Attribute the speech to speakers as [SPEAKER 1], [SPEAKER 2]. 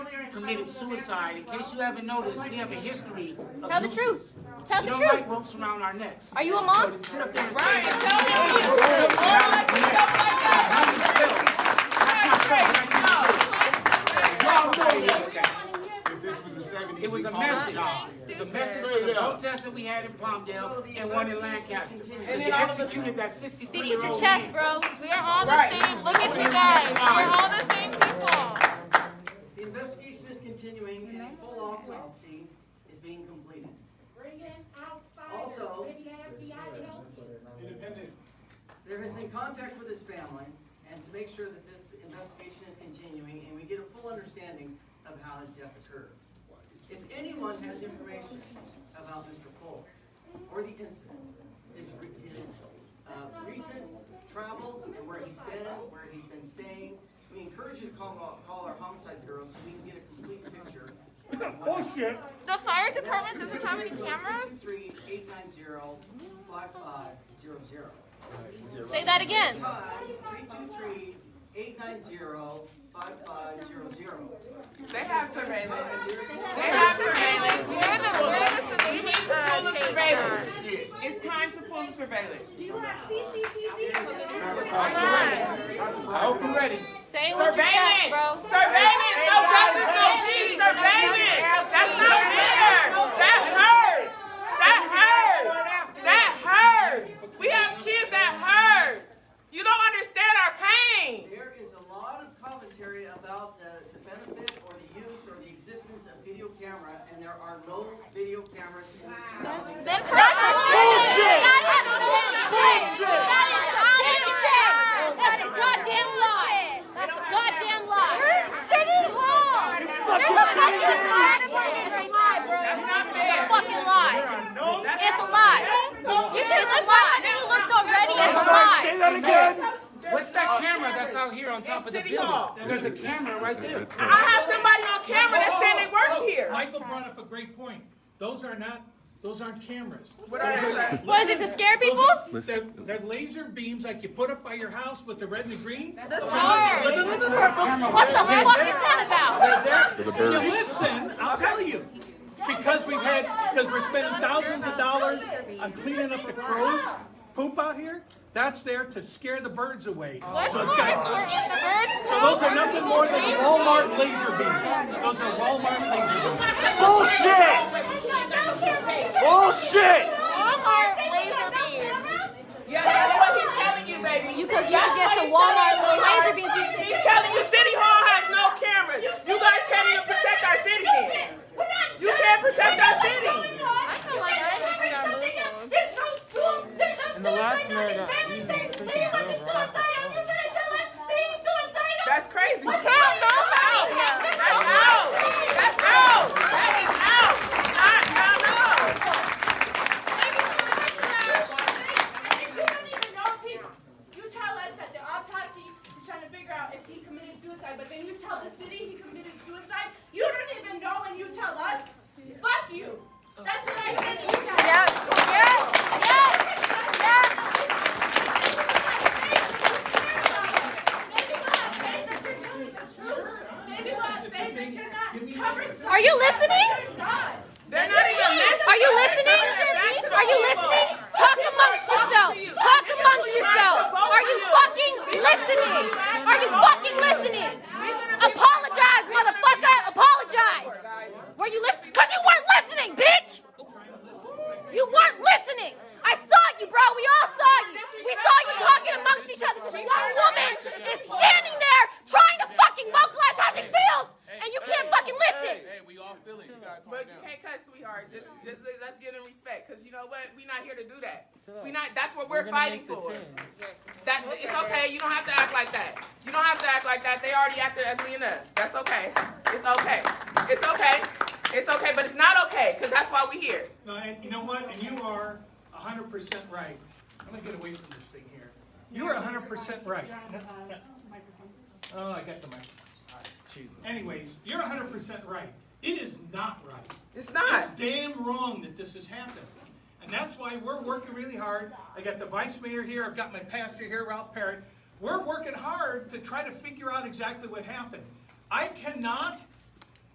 [SPEAKER 1] committed suicide. In case you haven't noticed, we have a history of
[SPEAKER 2] Tell the
[SPEAKER 1] nooses.
[SPEAKER 2] truth. Tell
[SPEAKER 1] We
[SPEAKER 2] the
[SPEAKER 1] don't
[SPEAKER 2] truth.
[SPEAKER 1] like ropes around our necks.
[SPEAKER 2] Are you a
[SPEAKER 1] So
[SPEAKER 2] mom?
[SPEAKER 1] to sit up there and say
[SPEAKER 3] Right,
[SPEAKER 1] that
[SPEAKER 3] tell them you. The morons and stuff like that.
[SPEAKER 1] by yourself, that's not something
[SPEAKER 3] Right,
[SPEAKER 1] that
[SPEAKER 3] no.
[SPEAKER 1] you- Y'all know that.
[SPEAKER 4] If this was the seventies.
[SPEAKER 1] It was a message. It was a message for the protests that we had in Palmdale and one in Lancaster. Because you executed that
[SPEAKER 2] Speak
[SPEAKER 1] sixty-three
[SPEAKER 2] with
[SPEAKER 1] year
[SPEAKER 2] your
[SPEAKER 1] old
[SPEAKER 2] chest, bro.
[SPEAKER 5] We are all the same. Look at you guys. We're all the same people.
[SPEAKER 6] The investigation is continuing and a full autopsy is being completed.
[SPEAKER 7] Bring in outsiders,
[SPEAKER 6] Also-
[SPEAKER 7] bring the FBI to help you.
[SPEAKER 6] There has been contact with his family and to make sure that this investigation is continuing and we get a full understanding of how his death occurred. If anyone has information about Mr. Polk or the incident, his, re- his, uh, recent travels and where he's been, where he's been staying, we encourage you to call, call our homicide bureau so we can get a complete picture. Bullshit.
[SPEAKER 5] The fire department doesn't have any cameras?
[SPEAKER 6] Three eight nine zero five five zero zero.
[SPEAKER 2] Say that again.
[SPEAKER 6] Five three two three eight nine zero five five zero zero.
[SPEAKER 3] They have surveillance. They
[SPEAKER 5] We're
[SPEAKER 3] have
[SPEAKER 5] surveillance.
[SPEAKER 3] surveillance.
[SPEAKER 5] We're the, we're the
[SPEAKER 3] We need to pull
[SPEAKER 5] surveillance.
[SPEAKER 3] the surveillance. It's time to pull the surveillance.
[SPEAKER 1] I hope you're ready.
[SPEAKER 2] Say it with your chest, bro.
[SPEAKER 3] Surveillance. Surveillance. No justice, no peace. Surveillance. That's not fair. That hurts. That hurts. That hurts. We have kids that hurts. You don't understand our pain.
[SPEAKER 6] There is a lot of commentary about the, the benefit or the use or the existence of video camera, and there are no video cameras in this surrounding. area.
[SPEAKER 5] That's bullshit.
[SPEAKER 2] That is bullshit. That is goddamn shit. That's a goddamn lie. That's a goddamn lie. We're in City Hall. There's a fucking lie. It's a lie, bro. It's a fucking lie. It's a lie. You it's a lie. You looked already. It's a lie.
[SPEAKER 1] What's that camera that's out here on top of the
[SPEAKER 3] City Hall.
[SPEAKER 1] building? There's a camera right there.
[SPEAKER 3] I have somebody on camera that said they worked here.
[SPEAKER 8] Oh, Michael brought up a great point. Those are not, those aren't cameras.
[SPEAKER 3] What are they saying?
[SPEAKER 2] What is it to scare
[SPEAKER 8] Those
[SPEAKER 2] people?
[SPEAKER 8] are- They're, they're laser beams like you put up by your house with the red and the green. Oh,
[SPEAKER 2] The stars.
[SPEAKER 8] No, no, no, no, no.
[SPEAKER 2] What the fuck is that about?
[SPEAKER 8] If you listen, I'll tell you. Because we've had, because we're spending thousands of dollars on cleaning up the crows poop out here, that's there to scare the birds away.
[SPEAKER 5] What's more
[SPEAKER 8] So it's got-
[SPEAKER 5] important, the birds
[SPEAKER 8] so those are nothing more than Walmart laser beams. Those are Walmart laser beams.
[SPEAKER 9] Bullshit! Bullshit!
[SPEAKER 5] Walmart laser beams.
[SPEAKER 3] Yeah, that's what he's telling you, baby.
[SPEAKER 2] You could you could get some Walmart little laser beams. You could
[SPEAKER 3] He's telling you City Hall has no cameras. You guys can't even protect our city then. You can't protect our city.
[SPEAKER 5] I feel like I think we got moved.
[SPEAKER 7] There's no school, there's no
[SPEAKER 9] And the last
[SPEAKER 7] family
[SPEAKER 9] mayor got- he's
[SPEAKER 7] saying
[SPEAKER 9] freaking
[SPEAKER 7] Liam was a
[SPEAKER 9] over. I don't
[SPEAKER 7] suicidal. You're trying to tell us that he's suicidal?
[SPEAKER 3] That's crazy. That's
[SPEAKER 5] Hell no, I
[SPEAKER 3] out.
[SPEAKER 5] don't
[SPEAKER 3] That's out. That's out. That is out. Not out.
[SPEAKER 7] You don't even know if he's, you tell us that the autopsy is trying to figure out if he committed suicide, but then you tell the city he committed suicide? You don't even know and you tell us? Fuck you. That's what I said to you guys.
[SPEAKER 5] Yep, yep, yep, yep.
[SPEAKER 2] Are you listening?
[SPEAKER 3] They're not even listening.
[SPEAKER 2] Are you listening?
[SPEAKER 3] They're back to the
[SPEAKER 2] Are you
[SPEAKER 3] people.
[SPEAKER 2] listening? Talk amongst yourself. Talk amongst yourself. Are you fucking listening? Are you fucking listening? Apologize, motherfucker. Apologize. Were you listening? Cause you weren't listening, bitch. You weren't listening. I saw you, bro. We all saw you. We saw you talking amongst each other. This one woman is standing there trying to fucking vocalize how she feels, and you can't fucking listen.
[SPEAKER 3] But you can't cuss, sweetheart. Just, just let- let's give them respect, cause you know what? We not here to do that. We not. That's what we're fighting for. That it's okay. You don't have to act like that. You don't have to act like that. They already acted ugly enough. That's okay. It's okay. It's okay. It's okay. But it's not okay, cause that's why we here.
[SPEAKER 8] No, and you know what? And you are hundred percent right. I'm gonna get away from this thing here. You are hundred percent right. Oh, I got the microphone. Anyways, you're hundred percent right. It is not right.
[SPEAKER 3] It's
[SPEAKER 8] It's
[SPEAKER 3] not.
[SPEAKER 8] damn wrong that this has happened. And that's why we're working really hard. I got the vice mayor here, I've got my pastor here, Ralph Parrott. We're working hard to try to figure out exactly what happened. I cannot